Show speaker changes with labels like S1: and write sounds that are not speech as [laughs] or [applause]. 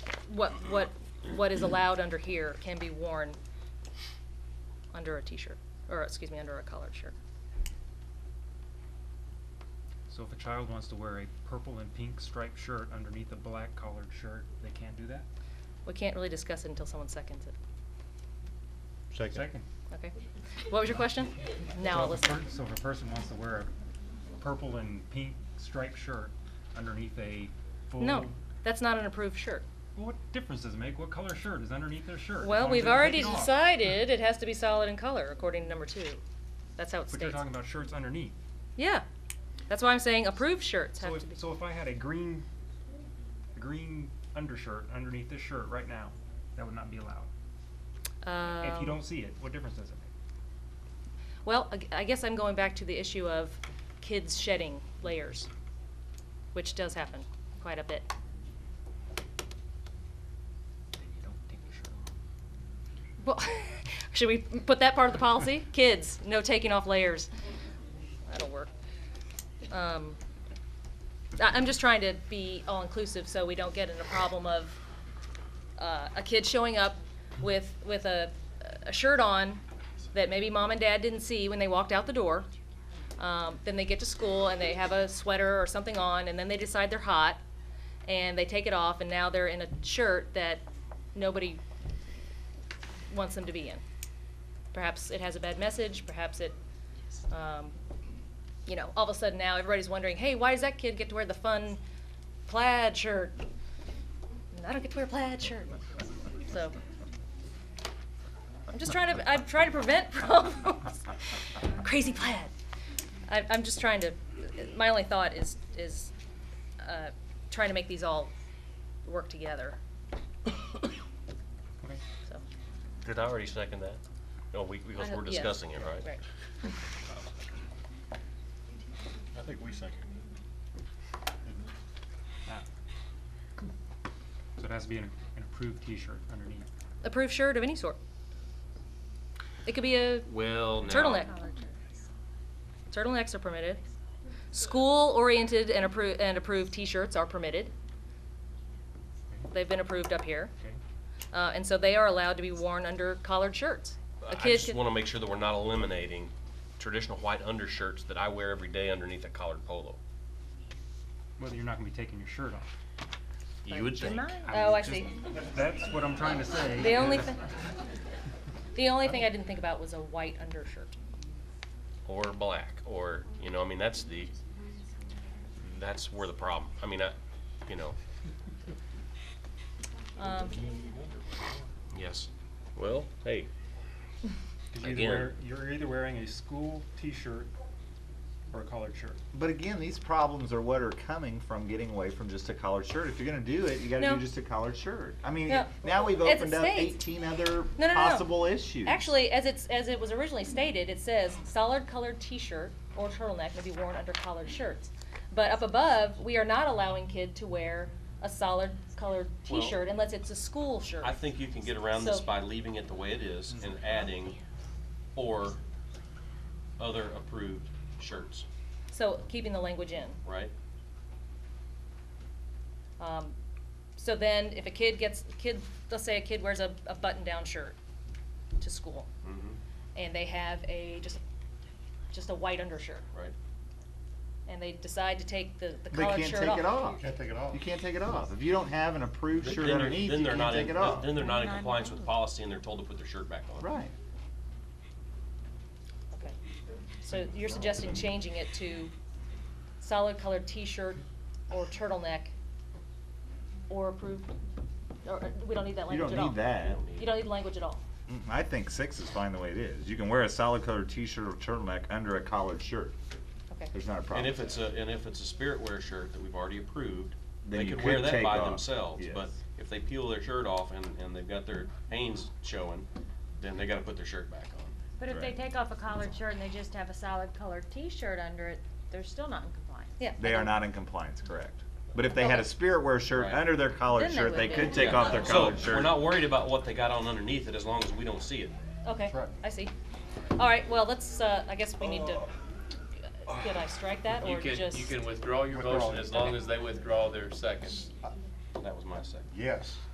S1: what, what, what is allowed under here can be worn under a t-shirt, or excuse me, under a collared shirt.
S2: So if a child wants to wear a purple and pink striped shirt underneath a black collared shirt, they can't do that?
S1: We can't really discuss it until someone seconds it,
S2: Second.
S1: okay? What was your question? Now I'll
S2: So if a
S1: listen.
S2: per- So if a person wants to wear a purple and pink striped shirt underneath a full.
S1: No, that's not an approved shirt.
S2: Well, What difference does it make? What color shirt is underneath their shirt? as
S1: Well,
S2: long as
S1: we've
S2: they don't take
S1: already
S2: it off?
S1: decided it has to be solid in color, according to number two. That's how it
S2: But you're
S1: states.
S2: talking about shirts underneath.
S1: Yeah, that's why I'm saying approved shirts
S2: So
S1: have
S2: if,
S1: to be,
S2: so if I had a green, a green undershirt underneath this shirt right now, that would not be allowed. If you
S1: um,
S2: don't see it, what difference does it make?
S1: Well, I g- I guess I'm going back to the issue of kids shedding layers, which does happen quite a bit.
S2: Then you don't take your shirt off.
S1: Well, [laughs] should we put that part of the policy? Kids, no taking off layers. That'll work. Um, I, I'm just trying to be all-inclusive so we don't get in a problem of, uh, a kid showing up with, with a, a shirt on that maybe mom and dad didn't see when they walked out the door. Um, then they get to school and they have a sweater or something on and then they decide they're hot and they take it off and now they're in a shirt that nobody wants them to be in. Perhaps it has a bad message, perhaps it, um, you know, all of a sudden now everybody's wondering, hey, why does that kid get to wear the fun plaid shirt? And I don't get to wear a plaid shirt. So, I'm just trying to, I'm trying to prevent [laughs] problems. Crazy plaid. I, I'm just trying to, my only thought is, is, uh, trying to make these all work together, [coughs]
S2: Okay.
S1: so.
S3: Did I already second that? No, we, because
S1: I-
S3: we're
S1: yeah,
S3: discussing it, right?
S1: Right.
S4: I think we seconded
S2: Ah. So it has to be an, an approved T-shirt underneath.
S1: approved shirt of any sort. It could be a
S3: Well, now.
S1: turtleneck. Turtlenecks are permitted. School-oriented and approved, and approved T-shirts are permitted. They've been approved up here,
S2: Okay?
S1: uh, and so they are allowed to be worn under collared shirts. A
S3: I
S1: kid
S3: just
S1: could-
S3: want to make sure that we're not eliminating traditional white undershirts that I wear every day underneath a collared polo.
S2: Whether you're not gonna be taking your shirt off.
S3: You would think.
S1: Oh, I
S2: Just-
S1: see.
S2: That's what I'm trying to say.
S1: The only
S2: is-
S1: thing, the only thing I didn't think about was a white undershirt.
S3: Or black, or, you know, I mean, that's the, that's where the problem, I mean, I, you know,
S1: Um,
S3: yes. Well, hey,
S2: 'cause you're either
S3: Again.
S2: wear- You're either wearing a school T-shirt or a collared shirt.
S4: But again, these problems are what are coming from getting away from just a collared shirt. If you're gonna do it, you gotta
S1: No.
S4: do just a collared shirt. I mean,
S1: No.
S4: now we've
S1: As it
S4: opened up
S1: states.
S4: eighteen other
S1: No, no, no.
S4: possible issues.
S1: Actually, as it's, as it was originally stated, it says solid colored t-shirt or turtleneck may be worn under collared shirts. But up above, we are not allowing kid to wear a solid colored
S3: Well-
S1: t-shirt unless it's a school shirt.
S3: I think you can get around this
S1: So- Mm-hmm.
S3: by leaving it the way it is and adding or other approved shirts,
S1: So keeping the language in.
S3: right?
S1: Um, so then if a kid gets, kid, let's say a kid wears a, a button-down shirt to school
S3: Mm-hmm.
S1: and they have a, just, just a white undershirt
S3: Right?
S1: and they decide to take the, the
S4: They
S1: collared
S4: can't
S1: shirt
S4: take
S1: off.
S4: it off.
S5: Can't take it off.
S4: You can't take it off. If you don't have an approved
S3: Then
S4: shirt
S3: they're-
S4: underneath,
S3: then
S4: you
S3: they're
S4: can't
S3: not
S4: take
S3: in-
S4: it off.
S3: Then they're not in compliance with policy and they're told to put their shirt back on.
S4: Right.
S1: Okay. So you're suggesting changing it to solid colored t-shirt or turtleneck or approved, or, or we don't need that
S4: You
S1: language at
S4: don't
S1: all?
S4: need that.
S1: You don't need language at all?
S4: Mm, I think six is fine the way it is. You can wear a solid colored T-shirt or turtleneck under a collared shirt.
S1: Okay.
S4: There's not a problem.
S3: And if it's a, and if it's a spirit wear shirt that we've already approved,
S4: Then
S3: they
S4: you
S3: could wear
S4: could
S3: that
S4: take
S3: by
S4: off,
S3: themselves,
S4: yes.
S3: but if they peel their shirt off and, and they've got their Hanes showing, then they gotta put their shirt back on.
S6: But if they
S4: Correct.
S6: take off a collared shirt and they just have a solid colored T-shirt under it, they're still not in compliance.
S1: Yeah.
S4: They are not in compliance, correct. But if they had a spirit wear shirt
S3: Right.
S4: under their collared
S6: Then they
S4: shirt, they
S6: would be.
S4: could take
S3: Yeah.
S4: off their collared
S3: So,
S4: shirt.
S3: we're not worried about what they got on underneath it as long as we don't see it.
S1: Okay,
S5: right.
S1: I see. All right, well, let's, uh, I guess we need to,
S4: Uh,
S1: could I strike that
S7: You
S1: or
S7: can,
S1: just?
S7: you can withdraw your
S5: Withdraw
S7: motion
S5: it.
S7: as long as they withdraw their second.
S3: That was my second.
S5: Yes.